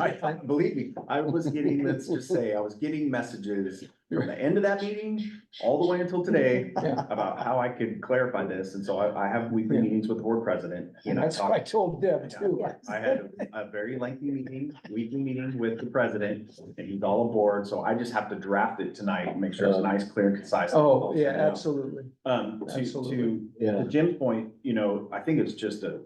I, I, believe me, I was getting, let's just say, I was getting messages from the end of that meeting all the way until today Yeah. about how I could clarify this. And so I, I have weekly meetings with the board president. He and I That's what I talked, told Deb too. I had a very lengthy meeting, weekly meeting with the president and he's all aboard. So I just have to draft it tonight and make sure it's nice, clear, concise. Uh, Oh, yeah, absolutely. Um, to, to Absolutely. Yeah. to Jim's point, you know, I think it's just a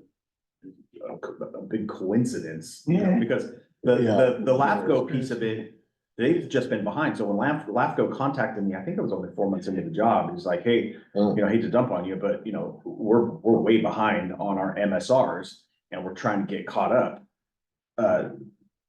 a, a big coincidence, you know, Yeah. because the, Yeah. the, the LAFCO piece of it, they've just been behind. So when LAF, LAFCO contacted me, I think it was only four months into the job, he's like, hey, Uh. you know, I hate to dump on you, but you know, we're, we're way behind on our MSRs and we're trying to get caught up. Uh,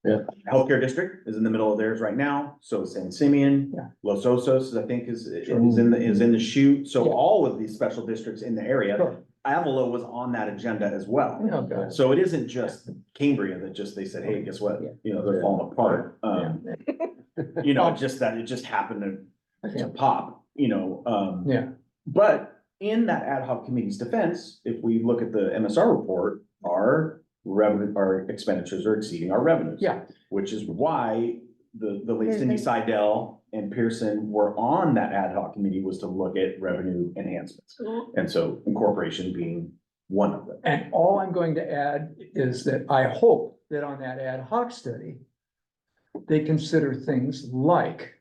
Yeah. Healthcare district is in the middle of theirs right now, so is San Simeon, Yeah. Los Osos, I think, is, is Sure. in the, is in the chute, so Yeah. all of these special districts in the area. Sure. Avalo was on that agenda as well, Oh, God. so it isn't just Cambria that just, they said, hey, guess what, Yeah. you know, they're falling apart. Um, you know, just that, it just happened to, Yeah. to pop, you know, um. Yeah. But in that ad hoc committee's defense, if we look at the MSR report, our revenue, our expenditures are exceeding our revenues. Yeah. Which is why the, the late There's Cindy a- Seidel and Pearson were on that ad hoc committee was to look at revenue enhancements. And so incorporation being one of them. And all I'm going to add is that I hope that on that ad hoc study, they consider things like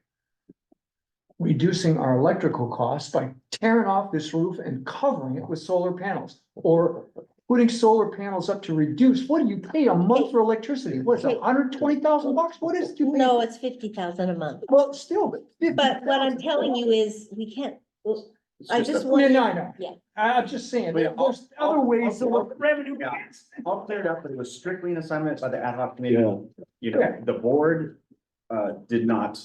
reducing our electrical costs by tearing off this roof and covering it with solar panels or putting solar panels up to reduce. What do you pay a month for electricity? What's it, hundred twenty thousand bucks? What is? you pay? No, it's fifty thousand a month, Well, still, but. but what I'm telling you is, we can't, It's I just just a- No, want. no, no. Yeah. I- I'm just saying, But yeah, there's other ways to look at revenue. Yeah. All cleared up, but it was strictly an assignment by the ad hoc committee. Yeah. You know, the board, uh, did not,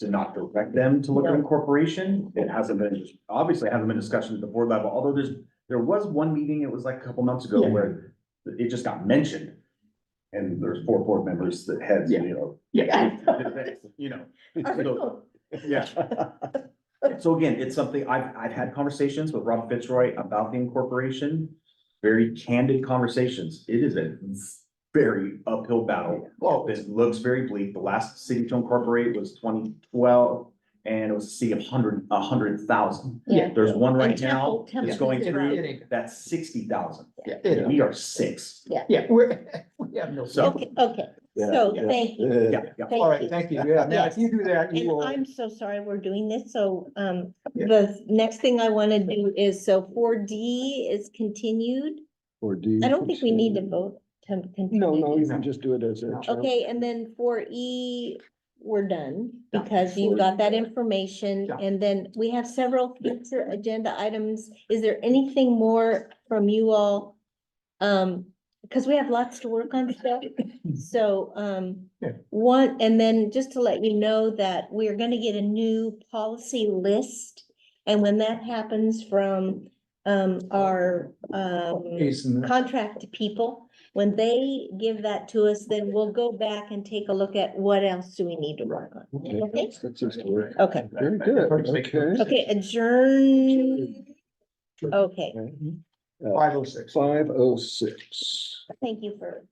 did not direct them to look at incorporation. It hasn't been, obviously it hasn't been discussion at the board level, although there's, there was one meeting, it was like a couple months ago Yeah. where it just got mentioned. And there's four board members that had, you know, Yeah. you know. so- Oh, yeah. So again, it's something, I've, I've had conversations with Rob Fitzroy about the incorporation, very candid conversations. It is a very uphill battle. Well, This looks very bleak. The last city to incorporate was twenty twelve, and it was a city of hundred, a hundred thousand. Yeah, There's one right And now, Temple- that's Temple going It- through, it ain't- that's sixty thousand. it And ain't. we are six. Yeah, we're, we have no. So- okay, okay, Yeah, so yeah. thank you, Yeah, Yeah, yeah. thank you. All right, thank you. Yeah, now if you do that, you And will. I'm so sorry we're doing this, so, um, Yeah. the next thing I wanna do is, so four D is continued. Or do you? I don't think we need to vote to continue. No, no, you No. can just do it as a. term. Okay, and then four E, we're done, Done. because you got that information, Done. and then we have several future agenda items. Is there anything more from you all? Um, because we have lots to work on still, so, um, Yeah. one, and then just to let you know that we are gonna get a new policy list. And when that happens from, um, our, um Jason, contract to people. When they give that to us, then we'll go back and take a look at what else do we need to work on. Okay, That's that's just work. okay, Very good, okay. okay, adjourn. Okay, Five oh six. Five oh six. thank you for